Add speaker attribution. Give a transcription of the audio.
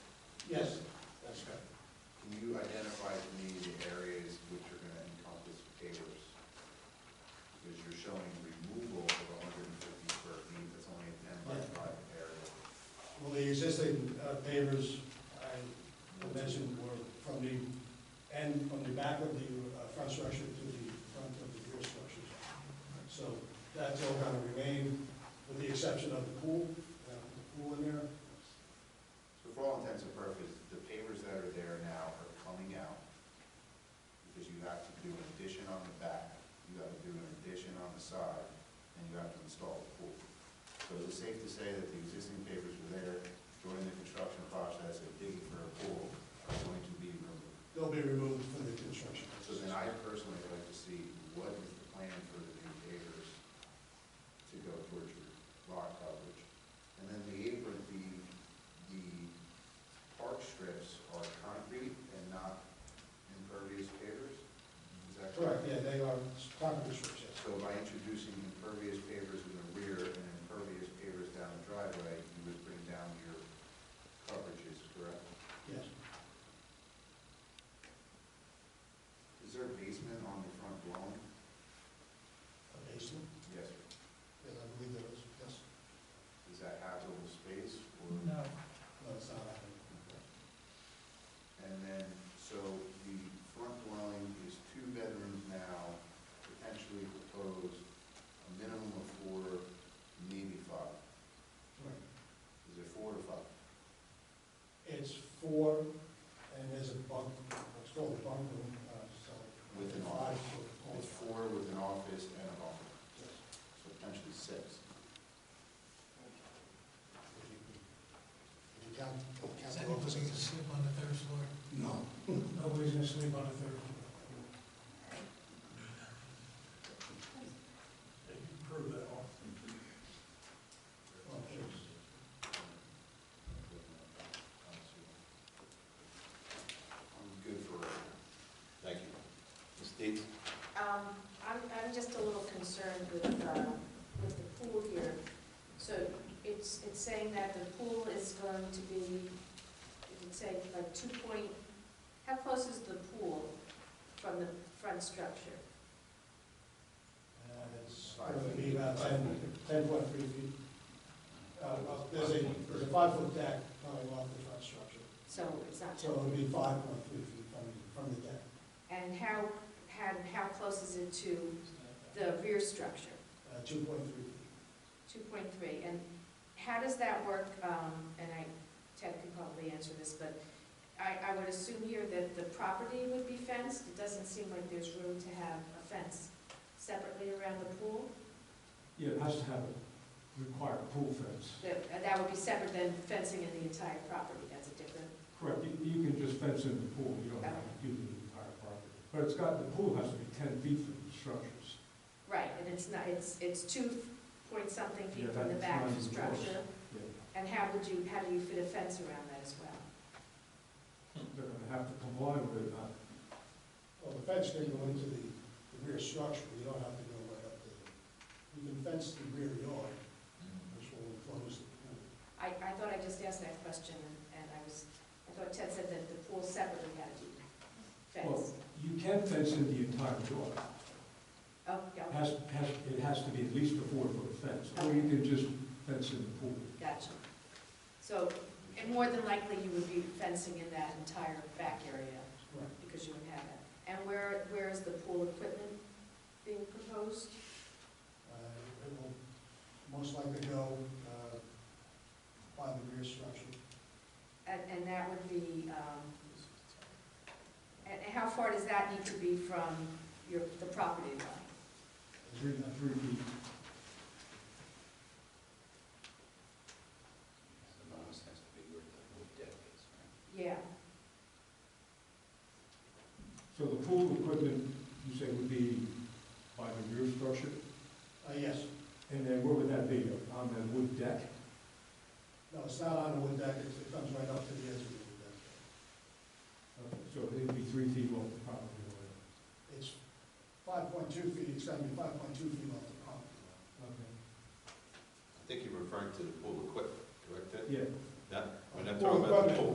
Speaker 1: Yes, that's right.
Speaker 2: Can you identify to me the areas which are gonna encompass pavers? Because you're showing removal of hundred and fifty square feet, that's only a ten by
Speaker 1: Yeah.
Speaker 2: five area.
Speaker 1: Well, the existing uh, pavers I mentioned were from the end, from the back of the uh, front structure to the front of the rear structures. So that's all gonna remain, with the exception of the pool, uh, the pool in there.
Speaker 2: So for all intents and purposes, the pavers that are there now are coming out, because you have to do an addition on the back, you have to do an addition on the side, and you have to install the pool. So is it safe to say that the existing pavers were there during the construction process of digging for a pool are going to be removed?
Speaker 1: They'll be removed from the construction.
Speaker 2: So then I personally would like to see what is the plan for the new pavers to go towards your lot coverage? And then the apron, the, the park strips are concrete and not impervious pavers? Is that
Speaker 1: Correct,
Speaker 2: correct?
Speaker 1: yeah, they are concrete strips, yes.
Speaker 2: So by introducing impervious pavers in the rear and impervious pavers down the driveway, you would bring down your coverages, correct?
Speaker 1: Yes.
Speaker 2: Is there a basement on the front lawn?
Speaker 1: A basement?
Speaker 2: Yes, sir.
Speaker 1: Yes, I believe there is, yes.
Speaker 2: Is that habitable space or?
Speaker 3: No,
Speaker 1: No, it's not happening.
Speaker 2: And then, so the front dwelling is two bedrooms now, potentially proposed, a minimum of four, maybe five.
Speaker 1: Correct.
Speaker 2: Is it four or five?
Speaker 1: It's four, and there's a bunk, it's called a bunk room, uh, so.
Speaker 2: With an
Speaker 1: Five
Speaker 2: office?
Speaker 1: foot.
Speaker 2: It's four with an office and a bathroom,
Speaker 1: Yes.
Speaker 2: so potentially six.
Speaker 1: If you- if you count- if you count
Speaker 3: is
Speaker 1: the
Speaker 3: anyone
Speaker 1: office
Speaker 3: going to
Speaker 1: as-
Speaker 3: sleep on the third floor?
Speaker 1: No.
Speaker 3: Nobody's going to sleep on the third floor.
Speaker 1: Prove that off. Okay.
Speaker 2: I'm good for, thank you.
Speaker 4: Ms. Deeds?
Speaker 5: Um, I'm, I'm just a little concerned with, uh, with the pool here. So it's, it's saying that the pool is going to be, it would say like two point, how close is the pool from the front structure?
Speaker 1: And it's
Speaker 2: Five
Speaker 1: going to be
Speaker 2: feet.
Speaker 1: about ten, ten point three feet. Uh, well, there's a, there's a five foot deck coming off the front structure,
Speaker 5: So it's not,
Speaker 1: so it'll be five point three feet from, from the deck.
Speaker 5: and how, how, how close is it to the rear structure?
Speaker 1: Uh, two point three feet.
Speaker 5: Two point three, and how does that work, um, and I, Ted could probably answer this, but I, I would assume here that the property would be fenced, it doesn't seem like there's room to have a fence separately around the pool,
Speaker 6: Yeah, it has to have a required pool fence.
Speaker 5: that, that would be separate than fencing in the entire property, that's a different,
Speaker 6: Correct, you, you can just fence in the pool, you don't have to do the entire property. But it's got, the pool has to be ten feet from the structures.
Speaker 5: right, and it's not, it's, it's two point something feet
Speaker 6: Yeah,
Speaker 5: from the
Speaker 6: that's
Speaker 5: back of the
Speaker 6: not even close.
Speaker 5: structure,
Speaker 6: Yeah,
Speaker 5: and how would you, how do you fit a fence around that as well?
Speaker 6: They're gonna have to comply with it, not
Speaker 1: Well, the fence can go into the, the rear structure, you don't have to go right up to the, you can fence the rear yard,
Speaker 2: Mm-hmm.
Speaker 1: which will enclose the pool.
Speaker 5: I, I thought I just asked that question, and- and I was, I thought Ted said that the pool separately had to be fenced.
Speaker 6: You can fence in the entire yard.
Speaker 5: Oh, yeah,
Speaker 6: Has, has, it has to be at least a four-foot fence, or you can just fence in the pool.
Speaker 5: gotcha. So, and more than likely, you would be fencing in that entire back area,
Speaker 1: Right.
Speaker 5: because you would have that. And where, where is the pool equipment being proposed?
Speaker 1: Uh, it will most likely go, uh, by the rear structure.
Speaker 5: And, and that would be, um, and and how far does that need to be from your, the property line?
Speaker 6: Three, uh, three feet.
Speaker 4: The bonus has to be where the deck is, right?
Speaker 5: Yeah,
Speaker 6: So the pool equipment, you say, would be by the rear structure?
Speaker 1: Uh, yes,
Speaker 6: And then where would that be, on the wood deck?
Speaker 1: no, it's not on a wood deck, it's- it comes right up to the edge of the wood deck.
Speaker 6: Okay, Uh, So it'd be three feet off the property line.
Speaker 1: It's five point two feet, it's gonna be five point two feet off the property line.
Speaker 6: Okay.
Speaker 4: I think you're referring to the pool equipment, correct? Ted?
Speaker 6: Yeah.
Speaker 4: That, we're not
Speaker 1: Pool
Speaker 4: talking about the
Speaker 1: equipment.
Speaker 4: pool.